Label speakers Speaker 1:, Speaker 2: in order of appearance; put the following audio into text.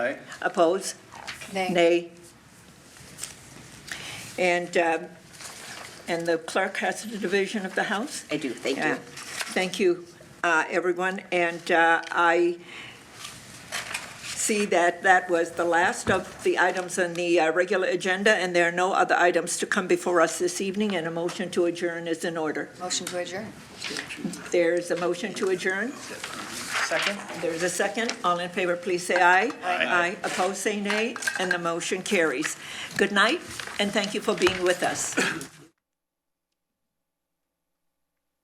Speaker 1: Aye. Oppose?
Speaker 2: Nay.
Speaker 1: Nay. And, um, and the clerk has the division of the House?
Speaker 2: I do, thank
Speaker 1: Yeah.
Speaker 2: you.
Speaker 1: Thank you, uh, everyone. And uh, I see that that was the last of the items on the uh, regular agenda, and there are no other items to come before us this evening, and a motion to adjourn is in order.
Speaker 2: Motion to adjourn.
Speaker 1: There's a motion to adjourn.
Speaker 3: Second?
Speaker 1: There's a second. All in favor, please say aye. Aye. Opposed, say nay, and the motion carries. Good night, and thank you for being with us.